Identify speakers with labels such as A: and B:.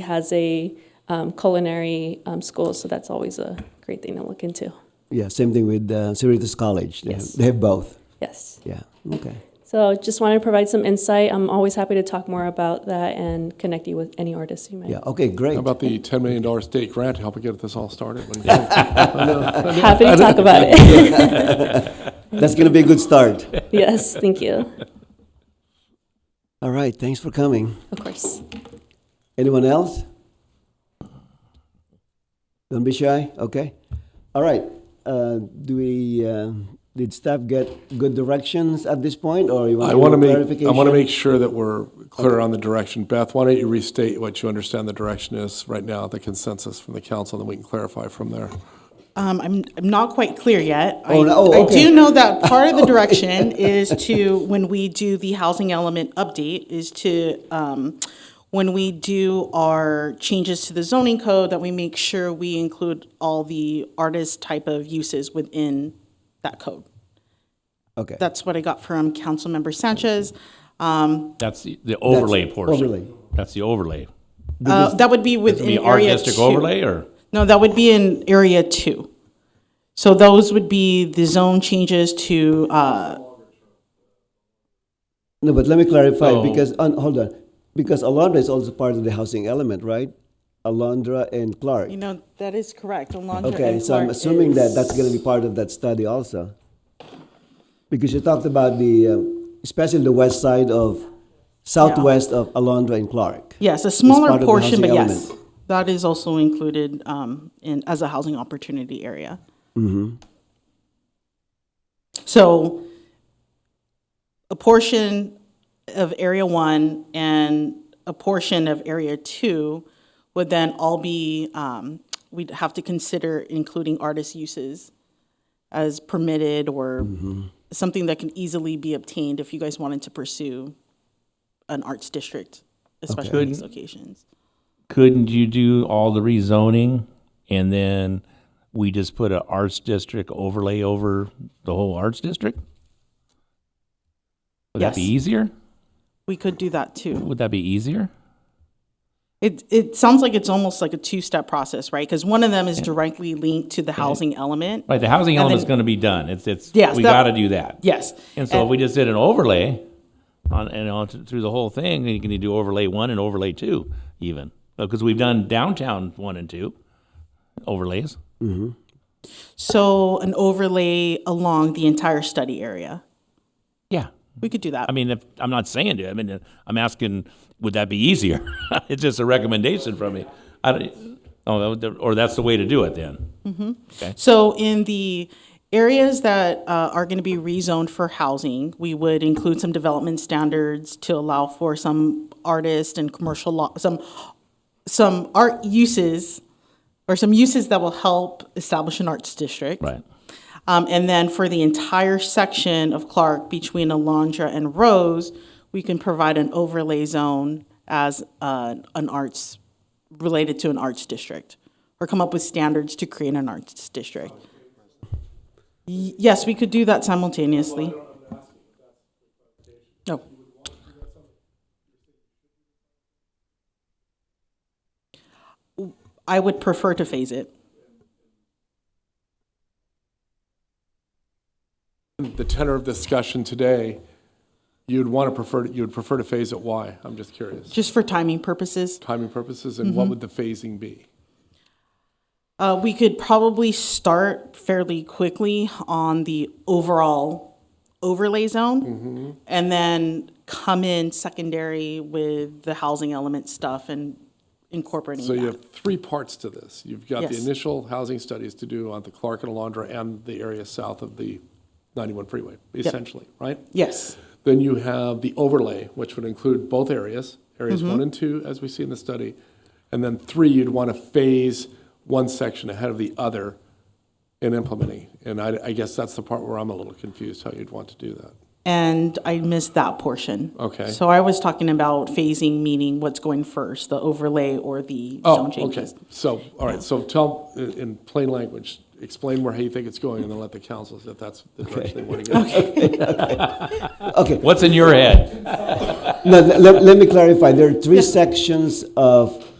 A: has a um, culinary um, school, so that's always a great thing to look into.
B: Yeah, same thing with uh, Cerritos College. They,
A: Yes.
B: have, they have both.
A: Yes.
B: Yeah. Okay.
A: So just wanted to provide some insight. I'm always happy to talk more about that and connect you with any artists you might
B: Yeah. Okay. Great.
C: How about the $10 million state grant to help get this all started?
A: happy to talk about it.
B: That's going to be a good start.
A: yes, thank you.
B: All right. Thanks for coming.
A: Of course.
B: Anyone else? Don't be shy. Okay. All right. Uh, do we? Uh, did staff get good directions at this point, or you want
C: I want to
B: do
C: make, I
B: clarification?
C: want to make sure that we're clear on the direction. Beth, why don't you restate what you understand the direction is right now, the consensus from the council, and then we can clarify from there.
D: Um, I'm, I'm not quite clear yet. I-
B: Oh, no- oh,
D: I
B: okay.
D: do know that part of the direction is to, when we do the housing element update, is to, um, when we do our changes to the zoning code, that we make sure we include all the artist type of uses within that code.
B: Okay.
D: That's what I got from Councilmember Sanchez.
E: That's the the overlay
B: That's
E: portion.
B: overlay.
E: That's the overlay.
D: Uh, that would be
E: Be
D: within
E: art
D: area
E: district
D: two.
E: overlay or?
D: No, that would be in area two. So those would be the zone changes to, uh,
B: No, but let me clarify
C: Oh.
E: So-
B: because on, hold on, because Alondra is also part of the housing element, right? Alondra and Clark.
D: You know, that is correct. Alondra
B: Okay,
D: and
B: so I'm
D: Clark
B: assuming that
D: is-
B: that's going to be part of that study also. Because you talked about the, uh, especially the west side of, southwest of Alondra and Clark.
D: Yes, a
B: part
D: smaller
B: of the
D: portion, but
B: housing
D: yes,
B: element.
D: that is also included um, in, as a housing opportunity area.
B: Mm-hmm.
D: So a portion of Area One and a portion of Area Two would then all be, um, we'd have to consider including artist uses as permitted or something that can easily be obtained if you guys wanted to pursue an arts district, especially in these locations.
E: Couldn't you do all the rezoning and then we just put a arts district overlay over the whole arts district? Would that be
D: Yes.
E: easier?
D: We could do that too.
E: Would that be easier?
D: It, it sounds like it's almost like a two-step process, right? Because one of them is directly linked to the housing element.
E: Right, the housing
D: And
E: element's
D: then-
E: gonna be done. It's, it's,
D: Yes,
E: we
D: that-
E: gotta do that.
D: Yes.
E: And so if we just did an overlay on, and on th- through the whole thing, then you can do overlay one and overlay two even. Because we've done downtown one and two overlays.
D: So an overlay along the entire study area.
E: Yeah.
D: We could do that.
E: I mean, if, I'm not saying to. I mean, uh, I'm asking, would that be easier? it's just a recommendation from me. I don't, oh, that would- or that's the way to do it then.
D: So in the areas that uh, are going to be rezoned for housing, we would include some development standards to allow for some artist and commercial law, some, some art uses or some uses that will help establish an arts district.
E: Right.
D: Um, and then for the entire section of Clark between Alondra and Rose, we can provide an overlay zone as uh, an arts, related to an arts district, or come up with standards to create an arts district. Y- Yes, we could do that simultaneously. No. I would prefer to phase it.
C: The tenor of discussion today, you'd want to prefer, you would prefer to phase it, why? I'm just curious.
D: Just for timing purposes,
C: Timing purposes, and what would the phasing be?
D: uh, we could probably start fairly quickly on the overall overlay zone
C: Mm-hmm.
D: and then come in secondary with the housing element stuff and incorporating
C: So
D: that.
C: you have three parts to this. You've got the
D: Yes.
C: initial housing studies to do on the Clark and Alondra and the area south of the 91 freeway, essentially, right?
D: yes.
C: Then you have the overlay, which would include both areas, areas one and two, as we see in the study. And then three, you'd want to phase one section ahead of the other in implementing. And I, I guess that's the part where I'm a little confused how you'd want to do that.
D: And I missed that portion.
C: Okay.
D: So I was talking about phasing, meaning what's going first, the overlay or the
C: Oh,
D: zone
C: okay.
D: changes.
C: So, all right, so tell, in in plain language, explain where you think it's going and then let the council, if that's the direction they want to go.
B: Okay,
E: What's in your head?
B: no, let, let me clarify. There are three sections of